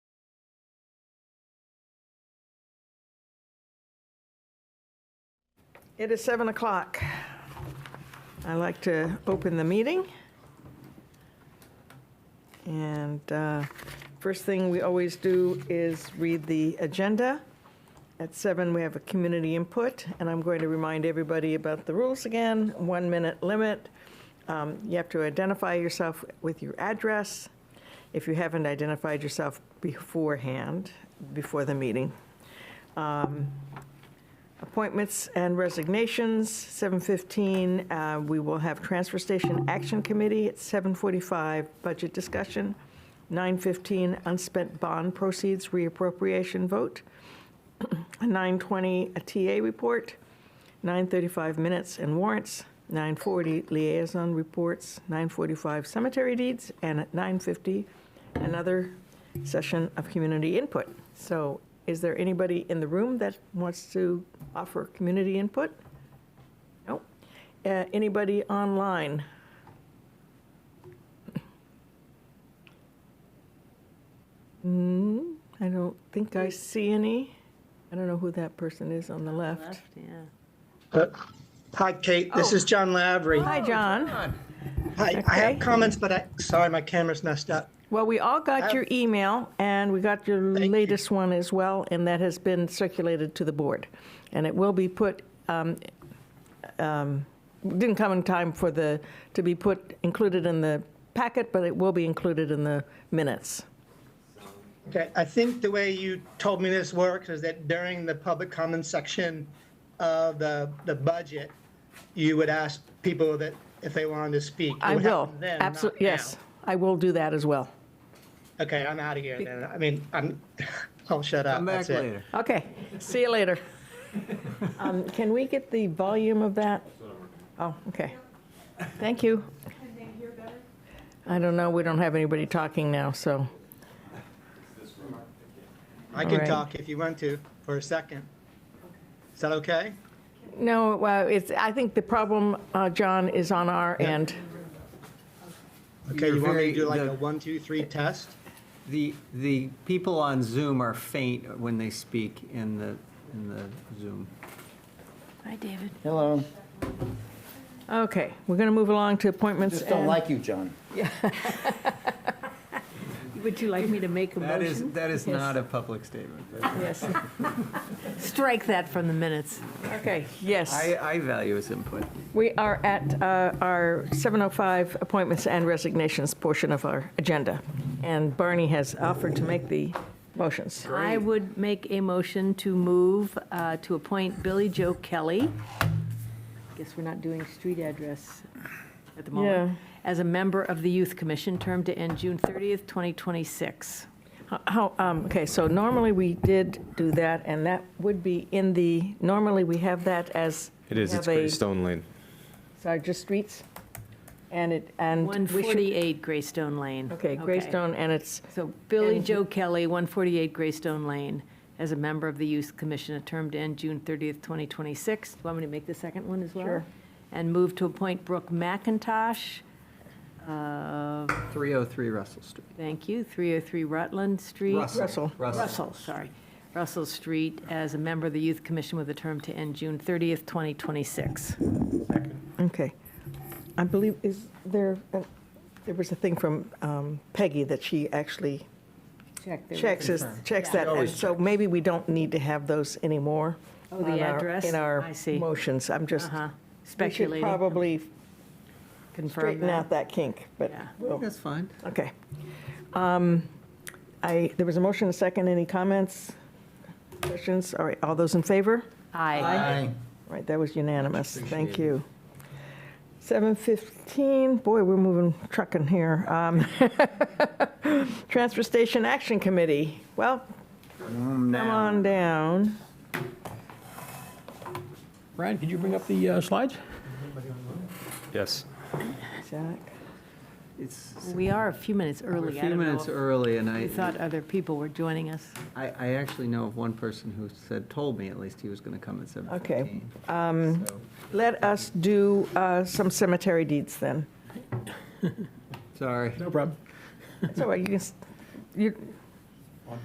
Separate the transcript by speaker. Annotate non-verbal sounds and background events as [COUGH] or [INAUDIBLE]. Speaker 1: It is 7 o'clock. I'd like to open the meeting. And uh, first thing we always do is read the agenda. At 7, we have a community input, and I'm going to remind everybody about the rules again, one-minute limit. Um, You have to identify yourself with your address if you haven't identified yourself beforehand, before the meeting. um, Appointments and resignations, 7:15, uh, we will have Transfer Station Action Committee at 7:45, budget discussion, 9:15, unspent bond proceeds reappropriation vote, 9:20, a TA report, 9:35 minutes and warrants, 9:40 liaison reports, 9:45 cemetery deeds, and at 9:50, another session of community input. So is there anybody in the room that wants to offer community input? No. Uh, Anybody online? Hmm, I don't think I see any. I don't know who that person is on the left.
Speaker 2: yeah.
Speaker 3: Uh, Hi, Kate. This is John Lavery.
Speaker 1: Oh. Hi, John.
Speaker 3: Hi. I
Speaker 1: okay.
Speaker 3: have comments, but I, sorry, my camera's messed up.
Speaker 1: Well, we all got your email, and we got your
Speaker 3: Thank you.
Speaker 1: latest one as well, and that has been circulated to the board. And it will be put, um, um, didn't come in time for the, to be put, included in the packet, but it will be included in the minutes.
Speaker 3: Okay, I think the way you told me this works is that during the public comment section of the, the budget, you would ask people that, if they wanted to speak. It
Speaker 1: I
Speaker 3: would
Speaker 1: will,
Speaker 3: happen then, not
Speaker 1: absolutely, yes,
Speaker 3: now.
Speaker 1: I will do that as well.
Speaker 3: Okay, I'm out of here then. I mean, I'm, [LAUGHS] I'll shut up.
Speaker 4: Come back
Speaker 3: That's it.
Speaker 4: later.
Speaker 1: Okay, see you later. Um, Can we get the volume of that? Oh, okay. Thank you. I don't know, we don't have anybody talking now, so,
Speaker 3: I
Speaker 1: All
Speaker 3: can
Speaker 1: right.
Speaker 3: talk if you want to for a second. Is that okay?
Speaker 1: no, well, it's, I think the problem, uh, John, is on our end.
Speaker 3: Okay,
Speaker 4: You're
Speaker 3: you want me
Speaker 4: very-
Speaker 3: to do like
Speaker 4: the-
Speaker 3: a one, two, three test?
Speaker 4: The, the people on Zoom are faint when they speak in the, in the Zoom.
Speaker 2: Hi, David.
Speaker 5: Hello.
Speaker 1: Okay, we're going to move along to appointments
Speaker 5: Just don't
Speaker 1: and
Speaker 5: like you, John.
Speaker 2: Would you like me to make a
Speaker 4: That is,
Speaker 2: motion?
Speaker 4: that is not a public statement.
Speaker 1: Yes,
Speaker 2: Strike that from the minutes.
Speaker 1: okay, yes.
Speaker 4: I, I value his input.
Speaker 1: We are at uh, our 7:05 appointments and resignations portion of our agenda, and Barney has offered to make the motions.
Speaker 2: I would make a motion to move uh, to appoint Billy Joe Kelly. Guess we're not doing street address at the moment. As a member of the Youth Commission, term to end June 30th, 2026.
Speaker 1: How, um, okay, so normally we did do that, and that would be in the, normally we have that as.
Speaker 6: It is,
Speaker 1: we
Speaker 6: it's
Speaker 1: have a-
Speaker 6: pretty stone lane.
Speaker 1: Sorry, just streets? And it, and. we should-
Speaker 2: 148 Greystone Lane.
Speaker 1: Okay, Greystone, and it's,
Speaker 2: So Billy
Speaker 1: And-
Speaker 2: Joe Kelly, 148 Greystone Lane, as a member of the Youth Commission, a term to end June 30th, 2026. Want me to make the second one as well?
Speaker 1: Sure.
Speaker 2: And move to appoint Brooke McIntosh, uh,
Speaker 4: 303 Russell Street.
Speaker 2: thank you, 303 Rutland Street.
Speaker 1: Russell.
Speaker 4: Russell.
Speaker 2: Russell, sorry. Russell Street, as a member of the Youth Commission with a term to end June 30th, 2026.
Speaker 1: okay. I believe, is there, uh, there was a thing from um, Peggy that she actually checks, is- checks that, and so maybe we don't need to have those anymore.
Speaker 2: Oh, the
Speaker 1: on our-
Speaker 2: address?
Speaker 1: In
Speaker 2: I
Speaker 1: our
Speaker 2: see.
Speaker 1: motions, I'm just,
Speaker 2: Uh-huh,
Speaker 1: we should
Speaker 2: speculating.
Speaker 1: probably
Speaker 2: Confirm
Speaker 1: straighten
Speaker 2: that.
Speaker 1: out that kink, but
Speaker 2: Yeah.
Speaker 1: we'll
Speaker 4: That's fine.
Speaker 1: Okay. Um, I, there was a motion, a second, any comments, questions? All right, all those in favor?
Speaker 2: Aye.
Speaker 1: All right, that was unanimous, thank
Speaker 4: appreciated.
Speaker 1: you. 7:15, boy, we're moving, trucking here. Um, [LAUGHS] Transfer Station Action Committee, well, come on down.
Speaker 7: Ryan, could you bring up the uh, slides?
Speaker 6: Yes.
Speaker 1: Jack,
Speaker 4: It's
Speaker 2: We are a few minutes
Speaker 4: we're a
Speaker 2: early. I don't
Speaker 4: few
Speaker 2: know
Speaker 4: minutes
Speaker 2: if-
Speaker 4: early, and I,
Speaker 2: We thought other people were joining us.
Speaker 4: I, I actually know of one person who said, told me at least he was going to come at 7:15.
Speaker 1: Okay,
Speaker 2: um,
Speaker 4: So,
Speaker 1: Let us do uh, some cemetery deeds then.
Speaker 4: Sorry.
Speaker 7: No problem.
Speaker 1: That's all right, you can, s- you,